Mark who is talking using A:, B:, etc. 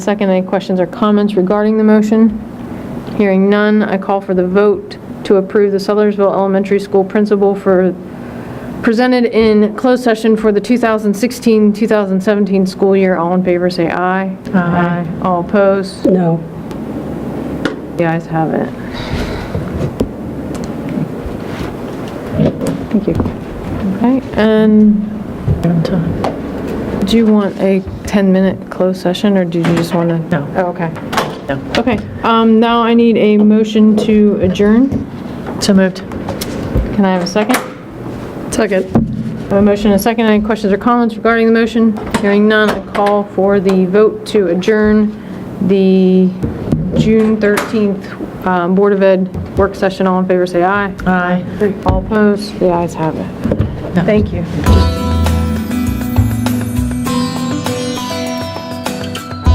A: Second, any questions or comments regarding the motion? Hearing none, I call for the vote to approve the Sellersville Elementary School principal for, presented in closed session for the 2016-2017 school year. All in favor, say aye. Aye. All opposed?
B: No.
A: The ayes have it.
B: Thank you.
A: Okay, and do you want a 10-minute closed session, or do you just want to?
C: No.
A: Oh, okay.
C: No.
A: Okay, um, now I need a motion to adjourn.
C: So moved.
A: Can I have a second?
B: Second.
A: I have a motion and a second. Any questions or comments regarding the motion? Hearing none, I call for the vote to adjourn the June 13th um, Board of Ed work session. All in favor, say aye.
C: Aye.
A: All opposed? The ayes have it.
C: No.
A: Thank you.
C: Just